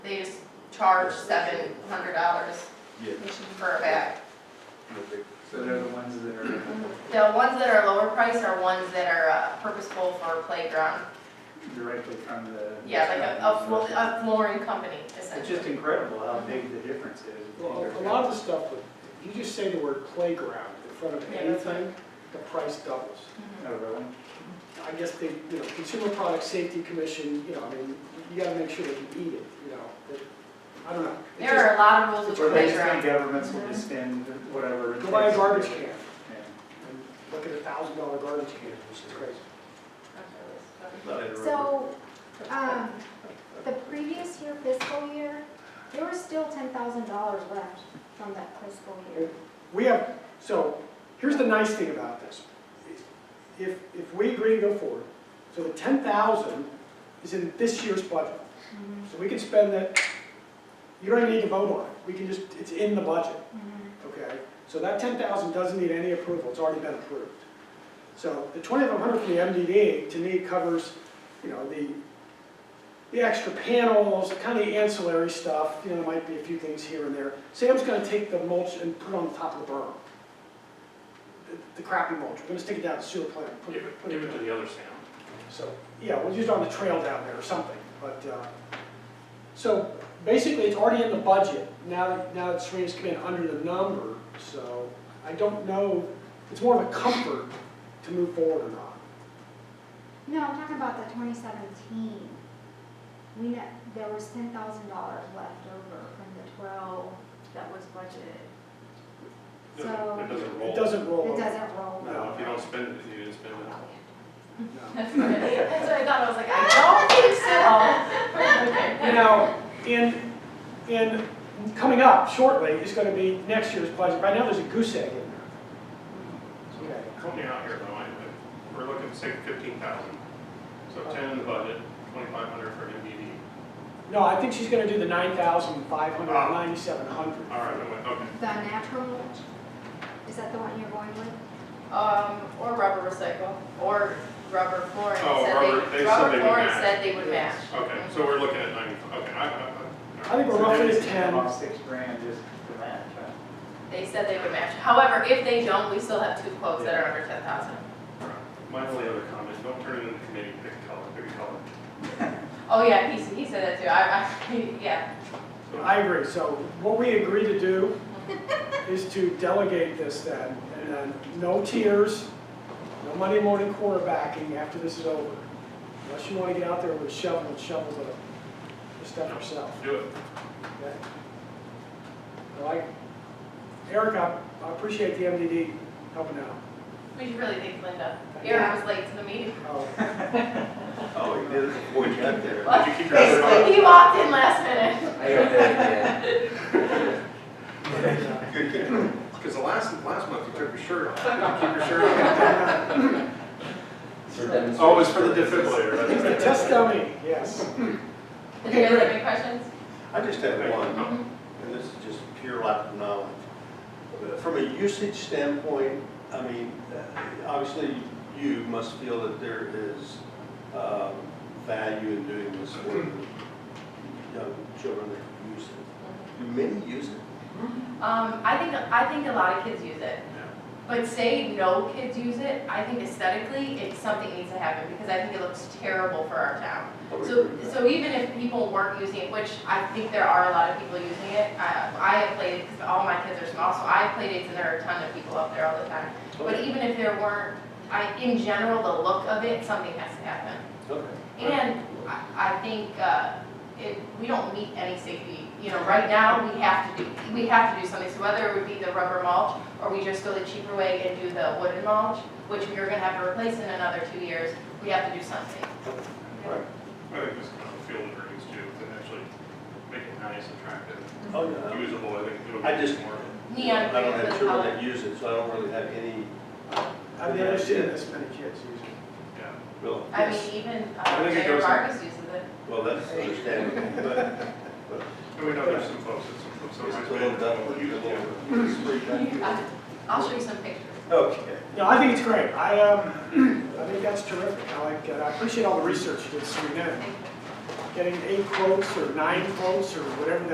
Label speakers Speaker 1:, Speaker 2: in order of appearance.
Speaker 1: charge seven hundred dollars
Speaker 2: Yeah.
Speaker 1: for a bag.
Speaker 3: So they're the ones that are,
Speaker 1: The ones that are lower price are ones that are uh, purposeful for playground.
Speaker 3: directly from the.
Speaker 1: Yeah, like uh, oh, a, a flo- a flooring company
Speaker 3: It's
Speaker 1: essentially.
Speaker 3: just incredible how big the difference is.
Speaker 4: Well, a lot of the stuff, with- you just say the word playground in front of
Speaker 1: Yeah.
Speaker 4: anything, the price doubles.
Speaker 1: Mhm.
Speaker 3: Oh, really?
Speaker 4: I guess they, you know, Consumer Product Safety Commission, you know, I mean, you gotta make sure that you eat it, you know, but, I don't know. It
Speaker 1: There are a lot of rules with
Speaker 3: Or they just think
Speaker 1: playground.
Speaker 3: governments will just spend whatever. it
Speaker 4: just- Go buy a
Speaker 3: takes.
Speaker 4: garbage can,
Speaker 3: Yeah.
Speaker 4: and look at a thousand dollar garbage can, which is crazy.
Speaker 5: So, um, the previous year fiscal year, there was still ten thousand dollars left from that fiscal year.
Speaker 4: We have, so, here's the nice thing about this. If, if we agree to go forward, so the ten thousand is in this year's budget. So we can spend that, you don't even need to vote on it, we can just, it's in the budget, okay? So that ten thousand doesn't need any approval, it's already been approved. So the twenty-five hundred from the MDD, to me, covers, you know, the, the extra panels, kind of the ancillary stuff, you know, there might be a few things here and there. Sam's gonna take the mulch and put it on the top of the berm. The- The crappy mulch, we're gonna stick it down the sewer plant. put
Speaker 6: Give
Speaker 4: put
Speaker 6: it, give it to the other Sam.
Speaker 4: so, yeah, we'll use it on the trail down there or something, but, uh, so basically it's already in the budget, now that, now that Serena's come in under the number, so I don't know, it's more of a comfort to move forward or not.
Speaker 5: No, I'm talking about the twenty seventeen. We know, there was ten thousand dollars left over from the twelve that was budgeted.
Speaker 6: Doesn't- It
Speaker 5: So,
Speaker 6: doesn't roll.
Speaker 4: It doesn't roll
Speaker 5: it
Speaker 4: over.
Speaker 5: doesn't roll.
Speaker 6: No, if you don't spend it, you didn't spend it.
Speaker 4: no.
Speaker 1: That's what I thought, I was like, I don't think so.
Speaker 4: You know, in, in, coming up shortly is gonna be next year's budget, right now there's a goose egg in there. Okay.
Speaker 6: Help me out here, though, I, I- we're looking, say, fifteen thousand. So ten in the budget, twenty-five hundred for MDD.
Speaker 4: No, I think she's gonna do the nine thousand five hundred, ninety-seven hundred.
Speaker 6: All right, I'm with, okay.
Speaker 5: The natural mulch, is that the one you're going with?
Speaker 1: Um, or rubber recycle, or rubber flooring.
Speaker 6: Oh,
Speaker 1: Said
Speaker 6: rubber- they said they
Speaker 1: Rubber
Speaker 6: would
Speaker 1: flooring
Speaker 6: match.
Speaker 1: said they would match.
Speaker 6: Okay, so we're looking at ninety-five, okay, I, I, I.
Speaker 4: I think we're
Speaker 3: So
Speaker 4: roughly
Speaker 3: they're
Speaker 4: at
Speaker 3: just paying
Speaker 4: ten.
Speaker 3: off six grand just for that, huh?
Speaker 1: They said they would match. However, if they don't, we still have two quotes that are under ten thousand.
Speaker 6: My only other comment, don't turn it into committee, pick a color, pick a color.
Speaker 1: Oh, yeah, he, he said that too. I, I, yeah.
Speaker 4: I agree, so what we agree to do is to delegate this then, and then no tears, no Monday morning quarterbacking after this is over. Unless you wanna get out there with a shovel and shovel the, the stuff yourself,
Speaker 6: Do it.
Speaker 4: okay? But I, Eric, I I appreciate the MDD helping out.
Speaker 1: We should really thank Linda. Erin was late to the meeting.
Speaker 4: Oh,
Speaker 2: Oh, he did it before you got there.
Speaker 1: Well,
Speaker 6: you keep your other eye?
Speaker 1: Basically, he walked in last minute.
Speaker 7: I got that,
Speaker 4: and, uh,
Speaker 6: Because the last, last month you took your shirt off. Keep your shirt on.
Speaker 7: yeah.
Speaker 6: Oh, it was for the defibrillator,
Speaker 4: It's
Speaker 6: that's
Speaker 4: the
Speaker 6: right.
Speaker 4: test dummy, yes.
Speaker 1: Did you guys have any questions?
Speaker 2: I just have one, and this is just pure lack of knowledge. But From a usage standpoint, I mean, uh, obviously, you must feel that there is um, value in doing this for the young children that use it. Do many use it?
Speaker 1: Um, I think, I think a lot of kids use it. But say no kids use it, I think aesthetically, it's something needs to happen because I think it looks terrible for our town. So, so even if people weren't using it, which I think there are a lot of people using it, I, I have played, because all my kids are small, so I have played it, and there are a ton of people up there all the time. But even if there weren't, I, in general, the look of it, something has to happen.
Speaker 2: Okay.
Speaker 1: And I, I think, uh, it, we don't meet any safety, you know, right now, we have to do, we have to do something, so whether it would be the rubber mulch, or we just go the cheaper way and do the wooden mulch, which we're gonna have to replace in another two years, we have to do something. oh,
Speaker 2: Right.
Speaker 6: I think this kind of field of dreams too, and actually make it nice, attractive,
Speaker 2: Oh, yeah.
Speaker 6: usable, I think it would
Speaker 2: I
Speaker 6: be
Speaker 2: just-
Speaker 6: more.
Speaker 1: Neon
Speaker 2: I
Speaker 1: green
Speaker 2: don't have
Speaker 1: is
Speaker 2: children
Speaker 1: color.
Speaker 2: that use it, so I don't really have any,
Speaker 4: I've never seen this many kids use it.
Speaker 6: Yeah.
Speaker 2: real
Speaker 1: I mean, even,
Speaker 6: I
Speaker 1: uh,
Speaker 6: think
Speaker 1: Mayor
Speaker 6: it goes-
Speaker 1: Vargas uses it.
Speaker 2: well, that's understandable, but
Speaker 6: And we know there's some folks that some, some.
Speaker 2: Just a little duck, a little spray
Speaker 1: Uh,
Speaker 2: back.
Speaker 1: I'll show you some pictures.
Speaker 2: Okay.
Speaker 4: No, I think it's great. I, um, I think that's terrific. I like, that. I appreciate all the research you did, Serena,
Speaker 1: Thank you.
Speaker 4: getting eight quotes or nine quotes or whatever that